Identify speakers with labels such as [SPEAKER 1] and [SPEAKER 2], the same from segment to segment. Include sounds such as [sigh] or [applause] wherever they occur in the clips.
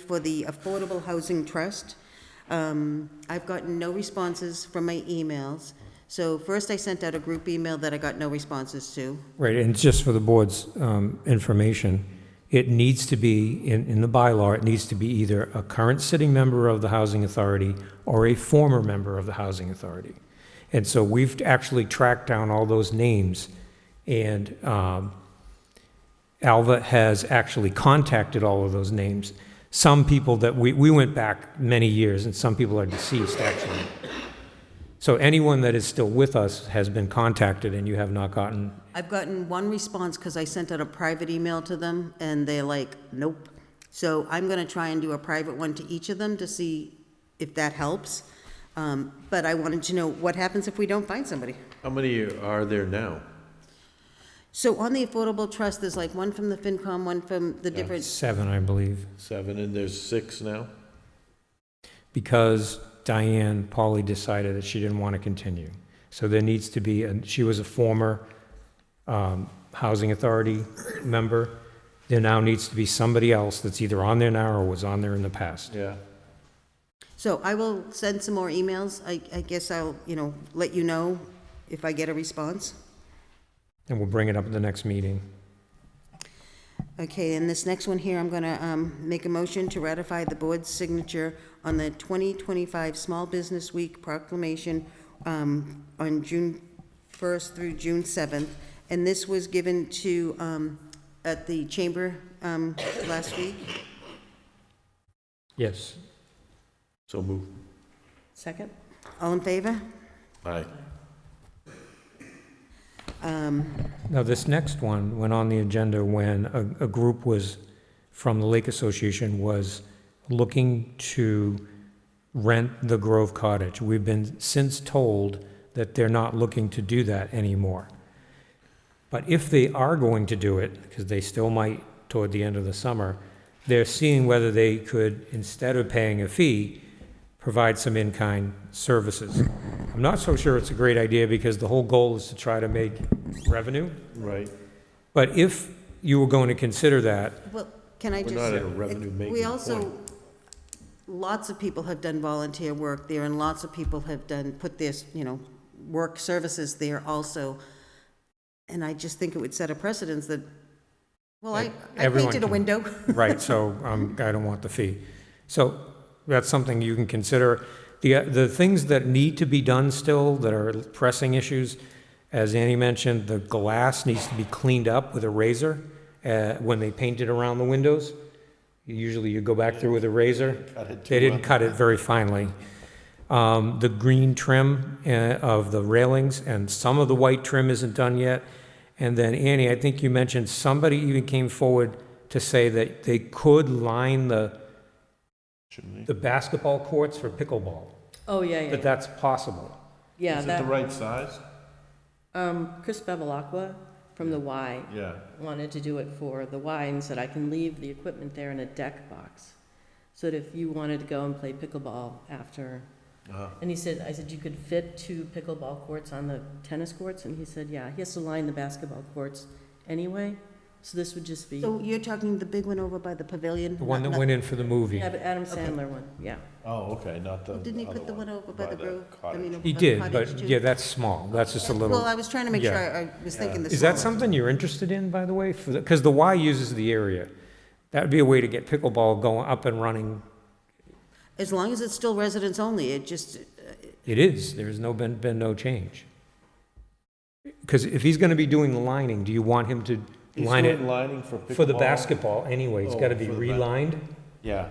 [SPEAKER 1] for the Affordable Housing Trust. Um, I've gotten no responses from my emails. So first I sent out a group email that I got no responses to.
[SPEAKER 2] Right, and just for the board's um, information, it needs to be, in, in the bylaw, it needs to be either a current sitting member of the Housing Authority or a former member of the Housing Authority. And so we've actually tracked down all those names, and um, Alva has actually contacted all of those names. Some people that, we, we went back many years, and some people are deceased, actually. So anyone that is still with us has been contacted, and you have not gotten
[SPEAKER 1] I've gotten one response because I sent out a private email to them and they're like, nope. So I'm going to try and do a private one to each of them to see if that helps. Um, But I wanted to know what happens if we don't find somebody.
[SPEAKER 3] How many are there now?
[SPEAKER 1] So on the Affordable Trust, there's like one from the FinCom, one from the different,
[SPEAKER 2] Seven, I believe,
[SPEAKER 3] Seven, and there's six now?
[SPEAKER 2] because Diane Pauley decided that she didn't want to continue. So there needs to be, and she was a former um, Housing Authority member. There now needs to be somebody else that's either on there now or was on there in the past.
[SPEAKER 3] Yeah.
[SPEAKER 1] so I will send some more emails. I, I guess I'll, you know, let you know if I get a response.
[SPEAKER 2] And we'll bring it up at the next meeting.
[SPEAKER 1] Okay, and this next one here, I'm going to make a motion to ratify the board's signature on the 2025 Small Business Week proclamation um, on June 1st through June 7th. And this was given to, um, at the chamber um, last week.
[SPEAKER 2] Yes.
[SPEAKER 3] So move.
[SPEAKER 1] Second. All in favor?
[SPEAKER 3] Aye.
[SPEAKER 1] Um,
[SPEAKER 2] Now, this next one went on the agenda when a, a group was, from the Lake Association, was looking to rent the Grove Cottage. We've been since told that they're not looking to do that anymore. But if they are going to do it, because they still might toward the end of the summer, they're seeing whether they could, instead of paying a fee, provide some in-kind services. I'm not so sure it's a great idea because the whole goal is to try to make revenue.
[SPEAKER 3] Right.
[SPEAKER 2] But if you were going to consider that,
[SPEAKER 1] Well, can I
[SPEAKER 3] We're
[SPEAKER 1] just?
[SPEAKER 3] not at a revenue-making
[SPEAKER 1] We also,
[SPEAKER 3] point.
[SPEAKER 1] lots of people have done volunteer work there, and lots of people have done, put their, you know, work services there also. And I just think it would set a precedence that, well, I, I
[SPEAKER 2] Everyone
[SPEAKER 1] painted a
[SPEAKER 2] can-
[SPEAKER 1] window.
[SPEAKER 2] [laughs] right, so um, I don't want the fee. So that's something you can consider. The, uh, the things that need to be done still, that are pressing issues, as Annie mentioned, the glass needs to be cleaned up with a razor uh, when they paint it around the windows. Usually you go back through with a razor. They didn't cut it very finely. Um, The green trim uh, of the railings, and some of the white trim isn't done yet. And then Annie, I think you mentioned somebody even came forward to say that they could line the, the basketball courts for pickleball,
[SPEAKER 4] Oh, yeah, yeah,
[SPEAKER 2] that that's possible.
[SPEAKER 4] yeah.
[SPEAKER 3] Is it the
[SPEAKER 4] That,
[SPEAKER 3] right size?
[SPEAKER 4] um, Chris Bevilacqua from the Y
[SPEAKER 3] Yeah.
[SPEAKER 4] wanted to do it for the Y and said, I can leave the equipment there in a deck box. So that if you wanted to go and play pickleball after,
[SPEAKER 3] Uh-huh.
[SPEAKER 4] and he said, I said, you could fit two pickleball courts on the tennis courts? And he said, yeah, he has to line the basketball courts anyway, so this would just be,
[SPEAKER 1] So you're talking the big one over by the pavilion?
[SPEAKER 2] The one
[SPEAKER 1] Not-
[SPEAKER 2] that
[SPEAKER 1] not-
[SPEAKER 2] went in for the movie.
[SPEAKER 4] yeah, but Adam Sandler one, yeah.
[SPEAKER 3] Oh, okay, not
[SPEAKER 1] [laughs]
[SPEAKER 3] the
[SPEAKER 1] Didn't he
[SPEAKER 3] other
[SPEAKER 1] put the one over by the grove? I
[SPEAKER 3] cottage.
[SPEAKER 1] mean,
[SPEAKER 2] He
[SPEAKER 1] uh,
[SPEAKER 2] did,
[SPEAKER 1] cottage
[SPEAKER 2] but
[SPEAKER 1] too?
[SPEAKER 2] yeah, that's small, that's just a
[SPEAKER 1] Well, I
[SPEAKER 2] little.
[SPEAKER 1] was trying to make
[SPEAKER 2] yeah.
[SPEAKER 1] sure, I I was thinking the
[SPEAKER 2] Is that
[SPEAKER 1] smaller.
[SPEAKER 2] something you're interested in, by the way? Because the Y uses the area. That would be a way to get pickleball going up and running.
[SPEAKER 1] As long as it's still residents only, it just,
[SPEAKER 2] It is, there's no, been, been no change. Because if he's going to be doing the lining, do you want him to
[SPEAKER 3] He's
[SPEAKER 2] line
[SPEAKER 3] doing
[SPEAKER 2] it
[SPEAKER 3] lining for
[SPEAKER 2] for the
[SPEAKER 3] pickleball.
[SPEAKER 2] basketball anyway? It's got to
[SPEAKER 3] Oh,
[SPEAKER 2] be
[SPEAKER 3] for the ba-
[SPEAKER 2] relined?
[SPEAKER 3] Yeah.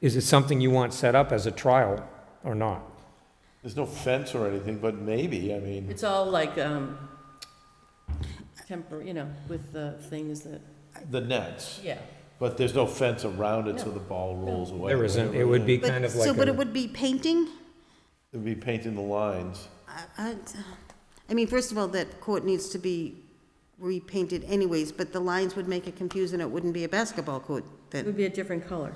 [SPEAKER 2] Is it something you want set up as a trial or not?
[SPEAKER 3] There's no fence or anything, but maybe, I mean,
[SPEAKER 4] It's all like, um, temporary, you know, with the things that,
[SPEAKER 3] the nets.
[SPEAKER 4] yeah.
[SPEAKER 3] But there's no fence around it so the ball rolls away.
[SPEAKER 2] There isn't, it would be
[SPEAKER 1] but-
[SPEAKER 2] kind of
[SPEAKER 1] so,
[SPEAKER 2] like
[SPEAKER 1] but it
[SPEAKER 2] a,
[SPEAKER 1] would be painting?
[SPEAKER 3] It'd be painting the lines.
[SPEAKER 1] I- I I mean, first of all, that court needs to be repainted anyways, but the lines would make it confusing, it wouldn't be a basketball court
[SPEAKER 4] It
[SPEAKER 1] then.
[SPEAKER 4] would be a different color.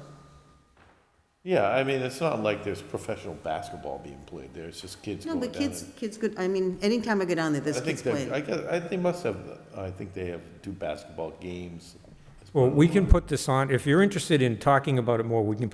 [SPEAKER 3] Yeah, I mean, it's not like there's professional basketball being played there, it's just kids
[SPEAKER 1] No,
[SPEAKER 3] going down.
[SPEAKER 1] but kids,
[SPEAKER 3] and-
[SPEAKER 1] kids could, I mean, anytime I go down there,
[SPEAKER 3] I
[SPEAKER 1] there's
[SPEAKER 3] think
[SPEAKER 1] kids
[SPEAKER 3] they,
[SPEAKER 1] playing.
[SPEAKER 3] I guess, I, they must have, I think they have two basketball games as
[SPEAKER 2] Well, we can put this on, if you're interested in talking about it more, we can